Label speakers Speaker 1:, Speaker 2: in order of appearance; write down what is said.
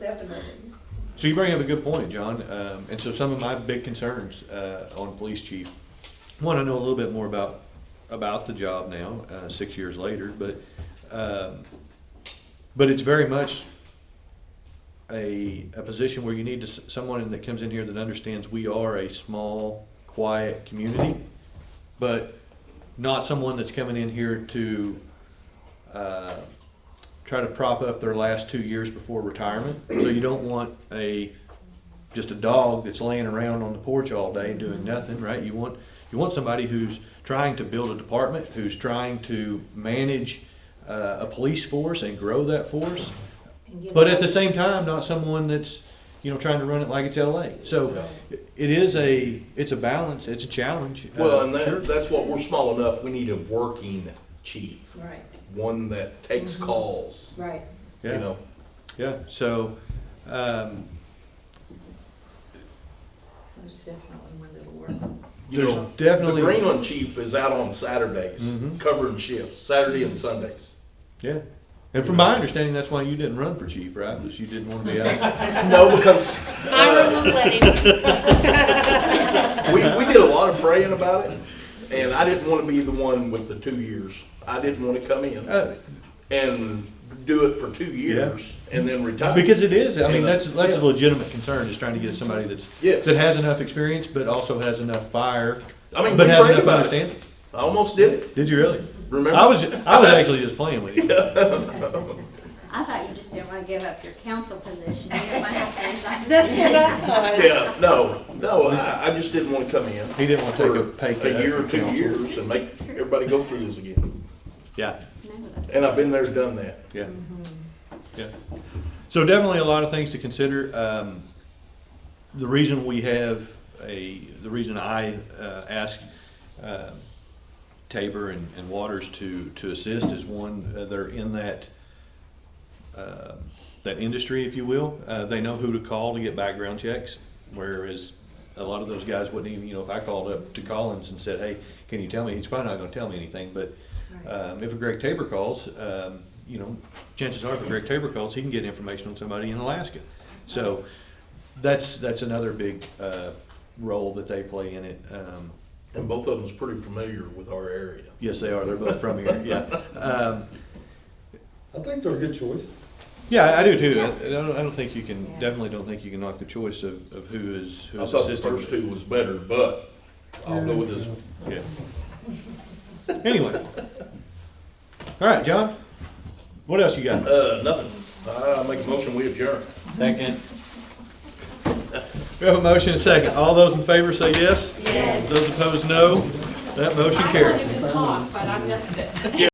Speaker 1: So you bring up a good point, John. Um, and so some of my big concerns uh, on police chief. One, I know a little bit more about about the job now, uh, six years later, but um, but it's very much a a position where you need to, s- someone that comes in here that understands we are a small, quiet community, but not someone that's coming in here to uh, try to prop up their last two years before retirement. So you don't want a, just a dog that's laying around on the porch all day doing nothing, right? You want, you want somebody who's trying to build a department, who's trying to manage uh, a police force and grow that force.
Speaker 2: And you
Speaker 1: But
Speaker 2: know-
Speaker 1: at the same time, not someone that's, you know, trying to run it like it's LA. So it is a, it's a balance, it's a challenge. uh,
Speaker 3: Well, and
Speaker 1: for sure.
Speaker 3: that, that's what, we're small enough, we need a working chief,
Speaker 2: Right,
Speaker 3: one that takes
Speaker 1: Mm-hmm.
Speaker 3: calls,
Speaker 2: right.
Speaker 3: you
Speaker 1: Yeah.
Speaker 3: know?
Speaker 1: Yeah, so, um,
Speaker 2: Most definitely one that'll work.
Speaker 3: You
Speaker 1: There's
Speaker 3: know,
Speaker 1: definitely-
Speaker 3: The Greenland chief is out on Saturdays,
Speaker 1: Mhm.
Speaker 3: covering shifts, Saturday and Sundays.
Speaker 1: yeah. And from my understanding, that's why you didn't run for chief, right? Because you didn't want to be out.
Speaker 3: No, because
Speaker 4: I remember letting,
Speaker 3: we, we did a lot of praying about it, and I didn't wanna be the one with the two years. I didn't wanna come in
Speaker 1: Uh,
Speaker 3: and do it for two years and then retire.
Speaker 1: Because it is, I mean,
Speaker 3: And, uh,
Speaker 1: that's, that's a
Speaker 3: yeah.
Speaker 1: legitimate concern, is trying to get somebody that's,
Speaker 3: Yes.
Speaker 1: that has enough experience, but also has enough fire,
Speaker 3: I mean,
Speaker 1: but
Speaker 3: we
Speaker 1: has
Speaker 3: prayed
Speaker 1: enough
Speaker 3: about it.
Speaker 1: understanding.
Speaker 3: I almost did it,
Speaker 1: Did you really?
Speaker 3: remember?
Speaker 1: I was, I was actually just playing with you.
Speaker 5: I thought you just didn't want to give up your council position. You didn't want to have to resign.
Speaker 4: that's what I thought.
Speaker 3: Yeah, no, no, I, I just didn't wanna come in.
Speaker 1: He didn't want to take a pay
Speaker 3: for
Speaker 1: cut.
Speaker 3: A year or
Speaker 1: for
Speaker 3: two
Speaker 1: council.
Speaker 3: years and make everybody go through this again.
Speaker 1: Yeah,
Speaker 5: No,
Speaker 3: And I've been there, done that.
Speaker 1: yeah, yeah. So definitely a lot of things to consider. Um, the reason we have a, the reason I, uh, asked, uh, Tabor and, and Waters to, to assist is one, uh, they're in that, uh, that industry, if you will. Uh, they know who to call to get background checks, whereas a lot of those guys wouldn't even, you know, if I called up to Collins and said, hey, can you tell me? He's probably not gonna tell me anything, but, um, if a Greg Tabor calls, um, you know, chances are if a Greg Tabor calls, he can get information on somebody in Alaska. So that's, that's another big, uh, role that they play in it. Um,
Speaker 3: And both of them's pretty familiar with our area.
Speaker 1: yes, they are. They're both from here, yeah. Um,
Speaker 6: I think they're a good choice.
Speaker 1: Yeah, I- I do too. I I don't, I don't think you can,
Speaker 2: Yeah.
Speaker 1: definitely don't think you can knock the choice of, of who is, who
Speaker 3: I
Speaker 1: is
Speaker 3: thought the
Speaker 1: assisting.
Speaker 3: first two was better, but I'll go with this one.
Speaker 1: Yeah. Anyway. All right, John, what else you got?
Speaker 3: Uh, nothing. I make a motion, we adjourn.
Speaker 1: Second. We have a motion and a second. All those in favor say yes.
Speaker 4: Yes.
Speaker 1: Those opposed, no. That motion
Speaker 4: I
Speaker 1: carries.
Speaker 4: wanted to talk, but I missed it.